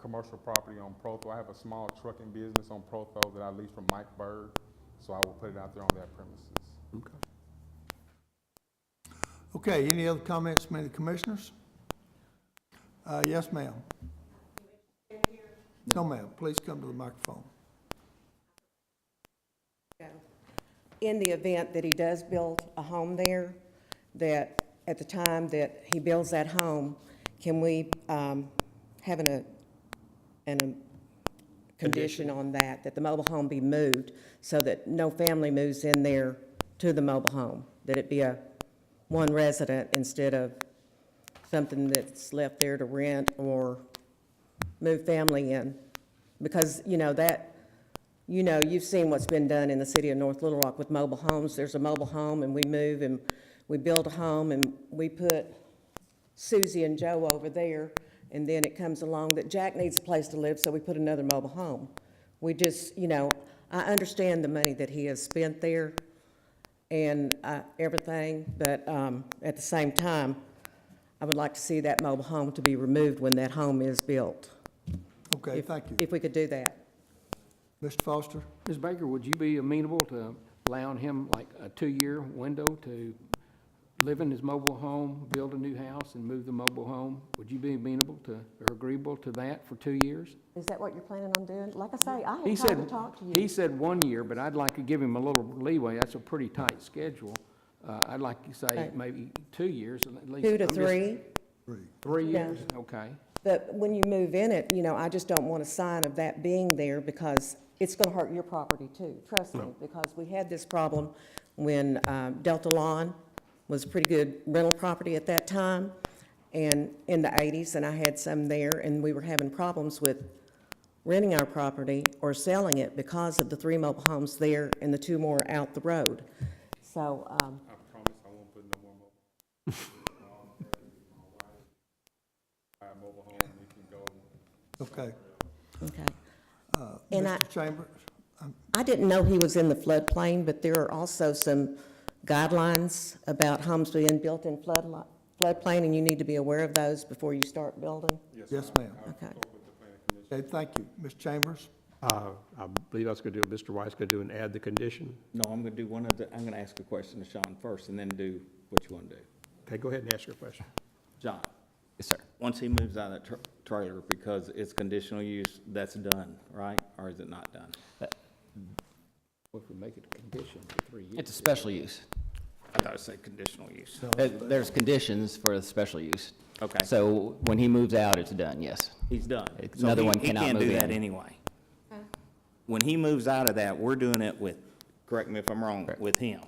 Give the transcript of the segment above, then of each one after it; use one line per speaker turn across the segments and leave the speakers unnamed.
commercial property on Protho. I have a small trucking business on Protho that I lease from Mike Bird, so I will put it out there on that premises.
Okay. Okay, any other comments from any commissioners? Uh, yes, ma'am. No, ma'am, please come to the microphone.
in the event that he does build a home there, that at the time that he builds that home, can we um, have an, a- an, a condition on that, that the mobile home be moved so that no family moves in there to the mobile home? That it be a one resident instead of something that's left there to rent or move family in? Because, you know, that, you know, you've seen what's been done in the city of North Little Rock with mobile homes. There's a mobile home, and we move, and we build a home, and we put Susie and Joe over there, and then it comes along that Jack needs a place to live, so we put another mobile home. We just, you know, I understand the money that he has spent there and uh, everything, but um, at the same time, I would like to see that mobile home to be removed when that home is built.
Okay,
If-
thank you.
If we could do that.
Mr. Foster?
Ms. Baker, would you be amenable to allowing him like a two-year window to live in his mobile home, build a new house, and move the mobile home? Would you be amenable to, or agreeable to that for two years?
Is that what you're planning on doing? Like I say, I
He
had time to
said,
talk to you.
he said one year, but I'd like to give him a little leeway. That's a pretty tight schedule. Uh, I'd like to say
Okay.
maybe two years at least.
Two to
I'm just-
three,
Three
Yeah.
years, okay.
but when you move in it, you know, I just don't want a sign of that being there because it's gonna hurt your property too, trust me, because we had this problem when um, Delta Lawn was a pretty good rental property at that time, and in the eighties, and I had some there, and we were having problems with renting our property or selling it because of the three mobile homes there and the two more out the road. So, um,
I promise I won't put no more mobile. Buy a mobile home, we can go.
Okay.
okay.
Uh,
And I-
Mr. Chambers?
I didn't know he was in the floodplain, but there are also some guidelines about homes being built in flood, floodplain, and you need to be aware of those before you start building.
Yes, ma'am.
Okay.
Okay, thank you. Mr. Chambers?
Uh, I believe that's going to do, Mr. White's going to do and add the condition.
No, I'm gonna do one of the, I'm gonna ask a question to Sean first and then do what you wanna do.
Okay, go ahead and ask your question.
John? Yes, sir. Once he moves out of that tr- trailer, because it's conditional use, that's done, right? Or is it not done?
Well, If we make it a condition for three years.
It's a special use.
I thought it said conditional use.
There- There's conditions for the special use.
Okay.
So when he moves out, it's done, yes.
He's done. So
Another
he-
one cannot
He
move
can't do that
in.
anyway. When he moves out of that, we're doing it with, correct me if I'm wrong, with him.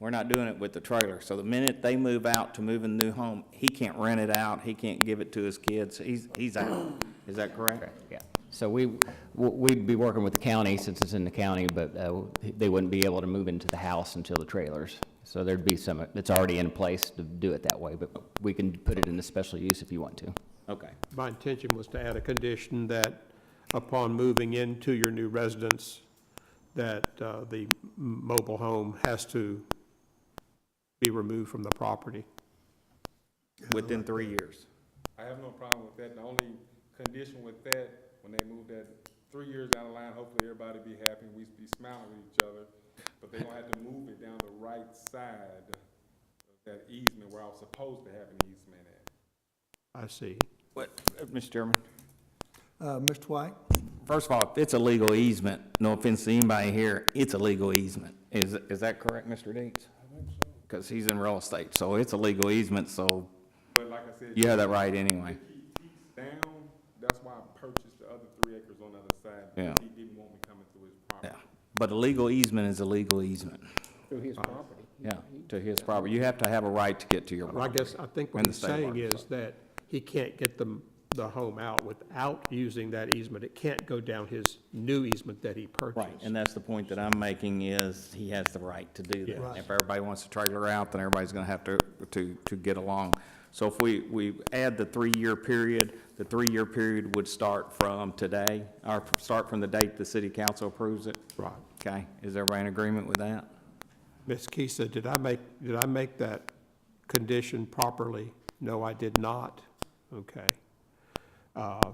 We're not doing it with the trailer. So the minute they move out to move in the new home, he can't rent it out, he can't give it to his kids, he's, he's out. Is that correct?
Yeah. So we, w- we'd be working with the county since it's in the county, but uh, they wouldn't be able to move into the house until the trailers. So there'd be some, it's already in place to do it that way, but we can put it in the special use if you want to.
Okay.
My intention was to add a condition that upon moving into your new residence, that uh, the m- mobile home has to be removed from the property.
Within three years.
I have no problem with that. The only condition with that, when they move that three years down the line, hopefully everybody be happy, we be smiling with each other. But they gonna have to move it down the right side of that easement where I was supposed to have an easement at.
I see.
What, uh, Mr. Chairman?
Uh, Mr. White?
First of all, if it's a legal easement, no offense to anybody here, it's a legal easement. Is, is that correct, Mr. Deeds? Because he's in real estate, so it's a legal easement, so
But like I said.
you have that right anyway.
he- he's Down, that's why I purchased the other three acres on the other side. because
Yeah.
He didn't want me coming through his
Yeah.
property.
But a legal easement is a legal easement,
Through his property.
yeah, to his property. You have to have a right to get to your
Well, I
property.
guess, I think what
And the
he's
state
saying
works,
is that he can't get the, the home out without using that easement. It can't go down his new easement that he purchased.
Right, and that's the point that I'm making is he has the right to do
Yeah.
that.
Right.
If everybody wants to trailer out, then everybody's gonna have to, to, to get along. So if we, we add the three-year period, the three-year period would start from today, or start from the date the city council approves it?
Right.
Okay, is everybody in agreement with that?
Ms. Kisa, did I make, did I make that condition properly? No, I did not. Okay. Uh,